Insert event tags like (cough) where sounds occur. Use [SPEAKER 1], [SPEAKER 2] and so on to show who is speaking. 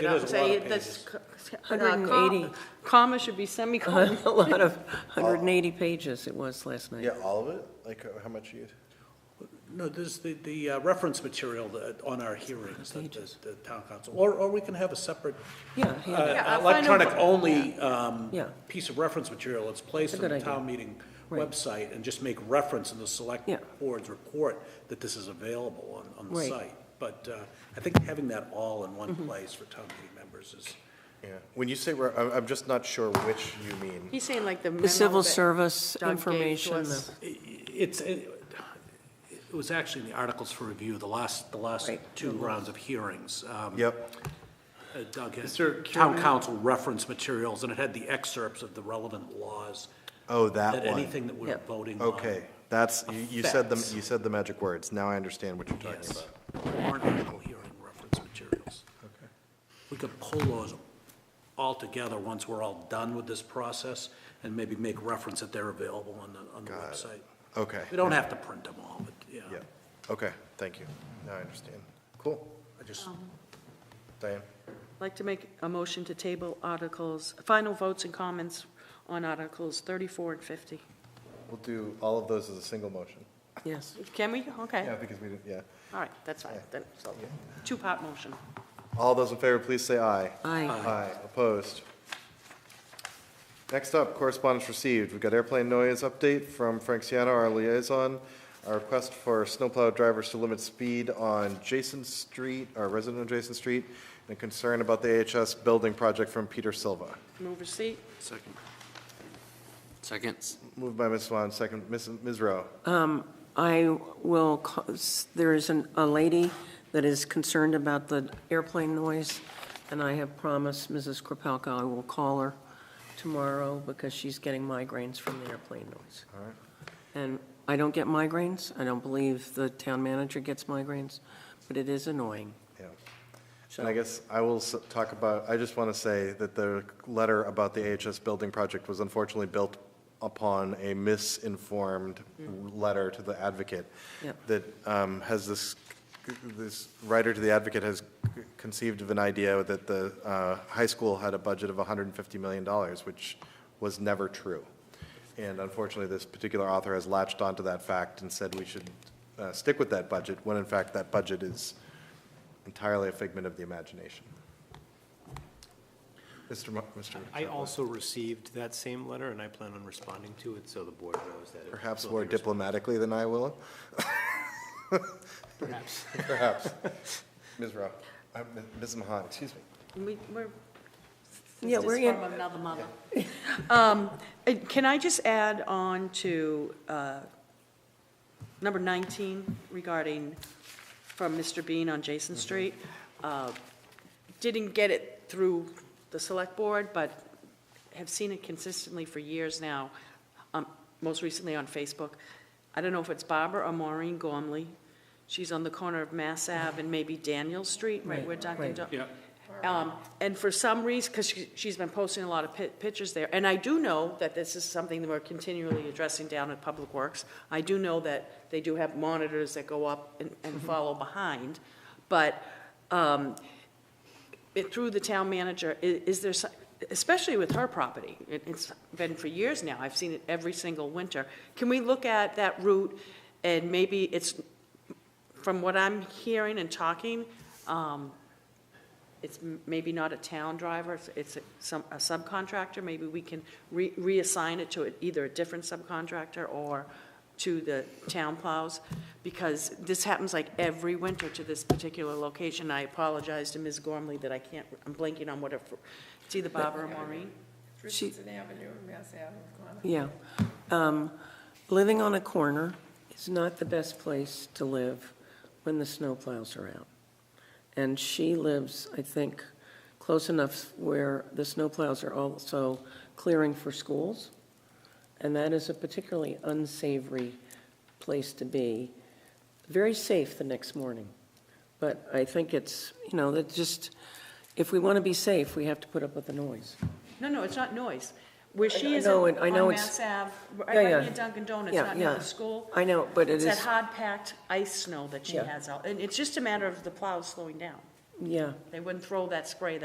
[SPEAKER 1] It
[SPEAKER 2] I'll
[SPEAKER 1] is a
[SPEAKER 2] say
[SPEAKER 1] lot of
[SPEAKER 2] this
[SPEAKER 1] pages.
[SPEAKER 2] c- c- uh, com-
[SPEAKER 3] 180.
[SPEAKER 2] Comma should be semicolon.
[SPEAKER 3] (laughs) A lot
[SPEAKER 4] (laughs)
[SPEAKER 3] of 180 pages it was last night.
[SPEAKER 4] Uh-huh. Yeah, all of it? Like, uh, how much you,
[SPEAKER 1] No, there's the, the uh, reference material that- on our hearings, that the the town council, or, or we can have a separate
[SPEAKER 3] Yeah,
[SPEAKER 1] uh,
[SPEAKER 3] hand it.
[SPEAKER 2] Yeah, I'll find out what-
[SPEAKER 1] electronic-only um,
[SPEAKER 3] Yeah.
[SPEAKER 1] piece of reference material that's placed
[SPEAKER 3] That's
[SPEAKER 1] on
[SPEAKER 3] a
[SPEAKER 1] the
[SPEAKER 3] good
[SPEAKER 1] town
[SPEAKER 3] idea.
[SPEAKER 1] meeting
[SPEAKER 3] Right.
[SPEAKER 1] website and just make reference in the select
[SPEAKER 3] Yeah.
[SPEAKER 1] board's report that this is available on, on the
[SPEAKER 3] Right. Mm-hmm.
[SPEAKER 1] site. But uh, I think having that all in one place for town meeting members is,
[SPEAKER 4] yeah. When you say, re- I'm, I'm just not sure which you (laughs) mean.
[SPEAKER 2] He's saying like the memo
[SPEAKER 3] The civil
[SPEAKER 2] that
[SPEAKER 3] service
[SPEAKER 2] Doug gave to
[SPEAKER 3] information,
[SPEAKER 2] us.
[SPEAKER 3] the-
[SPEAKER 1] i- i- it's, it it was actually in the articles for review, the last, the last
[SPEAKER 3] Right.
[SPEAKER 1] two rounds of hearings. um,
[SPEAKER 4] Yep,
[SPEAKER 1] uh, Doug had town council reference materials, and it had the excerpts of the relevant laws.
[SPEAKER 4] oh, that one.
[SPEAKER 1] Anything that we're
[SPEAKER 3] Yeah.
[SPEAKER 1] voting on.
[SPEAKER 4] Okay, that's, you- you said the,
[SPEAKER 1] Effects.
[SPEAKER 4] you said the magic words. Now I understand what you're talking
[SPEAKER 1] Yes.
[SPEAKER 4] about.
[SPEAKER 1] Warrant article hearing reference materials. We could pull those all together once we're all done with this process, and maybe make reference that they're available on the, on the
[SPEAKER 4] Got it.
[SPEAKER 1] website.
[SPEAKER 4] Okay.
[SPEAKER 1] We don't have to print them all, but, yeah.
[SPEAKER 4] Yeah, okay, thank you. Now I understand. Cool.
[SPEAKER 1] I just,
[SPEAKER 4] Diane?
[SPEAKER 2] I'd Like to make a motion to table articles, final votes and comments on articles 34 and 50.
[SPEAKER 4] We'll do all of those as a single motion.
[SPEAKER 3] yes.
[SPEAKER 2] Can we? Okay,
[SPEAKER 4] Yeah, because we didn't, yeah.
[SPEAKER 2] all right, that's fine, then, so, two-part motion.
[SPEAKER 4] All those in favor, please say aye.
[SPEAKER 3] Aye.
[SPEAKER 4] Aye, opposed. Next up, correspondence received. We've got airplane noise update from Frank Siano, our liaison. Our request for snowplow drivers to limit speed on Jason Street, our resident of Jason Street, and concern about the AHS building project from Peter Silva.
[SPEAKER 2] Move receipt,
[SPEAKER 1] second,
[SPEAKER 5] Seconds.
[SPEAKER 4] Moved by Ms. Swan, second, Ms. Ms. Rowe.
[SPEAKER 3] Um, I will, ca- s- there is an- a lady that is concerned about the airplane noise, and I have promised Mrs. Kropalka I will call her tomorrow because she's getting migraines from the airplane noise.
[SPEAKER 4] All right.
[SPEAKER 3] And I don't get migraines. I don't believe the town manager gets migraines, but it is annoying.
[SPEAKER 4] Yeah. And I guess I will s- talk about, I just want to say that the letter about the AHS building project was unfortunately built upon a misinformed letter to the advocate
[SPEAKER 3] Yep.
[SPEAKER 4] that um, has this, this writer to the advocate has conceived of an idea that the uh, high school had a budget of $150 million, which was never true. And unfortunately, this particular author has latched onto that fact and said we should uh, stick with that budget, when in fact that budget is entirely a figment of the imagination. Mr. Mo- Mr.
[SPEAKER 6] I also received that same letter, and I plan on responding to it, so the board knows that. it
[SPEAKER 4] Perhaps
[SPEAKER 6] will be
[SPEAKER 4] more
[SPEAKER 6] responded
[SPEAKER 4] diplomatically than I will? Perhaps. (laughs) Perhaps. Ms. Rowe, uh, Ms. Ms. Mahan, excuse me.
[SPEAKER 2] we, we're.
[SPEAKER 3] Yeah,
[SPEAKER 2] this
[SPEAKER 3] we're
[SPEAKER 2] is
[SPEAKER 3] in-
[SPEAKER 2] From another mother. Um, and Can I just add on to uh, number 19 regarding, from Mr. Bean on Jason
[SPEAKER 3] Mm-hmm.
[SPEAKER 2] Street? Uh, Didn't get it through the select board, but have seen it consistently for years now, um, most recently on Facebook. I don't know if it's Barbara or Maureen Gormley. She's on the corner of Mass Ave and maybe Daniel Street, right, where Dunkin'
[SPEAKER 3] right.
[SPEAKER 2] Donuts. Um, And for some reason, because she's been posting a lot of pi- pictures there, and I do know that this is something that we're continually addressing down at Public Works. I do know that they do have monitors that go up and- and follow behind, but um, it- through the town manager, i- is there, so- especially with her property, it- it's been for years now, I've seen it every single winter. Can we look at that route and maybe it's, from what I'm hearing and talking, um, it's m- maybe not a town driver, it's- it's a- some, a subcontractor, maybe we can re- reassign it to a- either a different subcontractor or to the town plows, because this happens like every winter to this particular location. I apologize to Ms. Gormley that I can't, I'm blanking on what her, fir- it's either Bob or Maureen.
[SPEAKER 7] Richardson Avenue, Mass Ave.
[SPEAKER 3] Yeah. Um, Living on a corner is not the best place to live when the snowplows are out. And she lives, I think, close enough where the snowplows are also clearing for schools. And that is a particularly unsavory place to be. Very safe the next morning. But I think it's, you know, that just, if we want to be safe, we have to put up with the noise.
[SPEAKER 2] No, no, it's not noise. Where she
[SPEAKER 3] I
[SPEAKER 2] is
[SPEAKER 3] know
[SPEAKER 2] on
[SPEAKER 3] it- I know
[SPEAKER 2] on
[SPEAKER 3] it's-
[SPEAKER 2] Mass Ave, right
[SPEAKER 3] Yeah, yeah.
[SPEAKER 2] near Dunkin' Donuts,
[SPEAKER 3] Yeah,
[SPEAKER 2] not near
[SPEAKER 3] yeah.
[SPEAKER 2] the school.
[SPEAKER 3] I know, but it
[SPEAKER 2] It's
[SPEAKER 3] is.
[SPEAKER 2] that hard-packed ice snow that she
[SPEAKER 3] Yeah.
[SPEAKER 2] has out, and it's just a matter of the plows slowing down.
[SPEAKER 3] Yeah.
[SPEAKER 2] They wouldn't throw that spray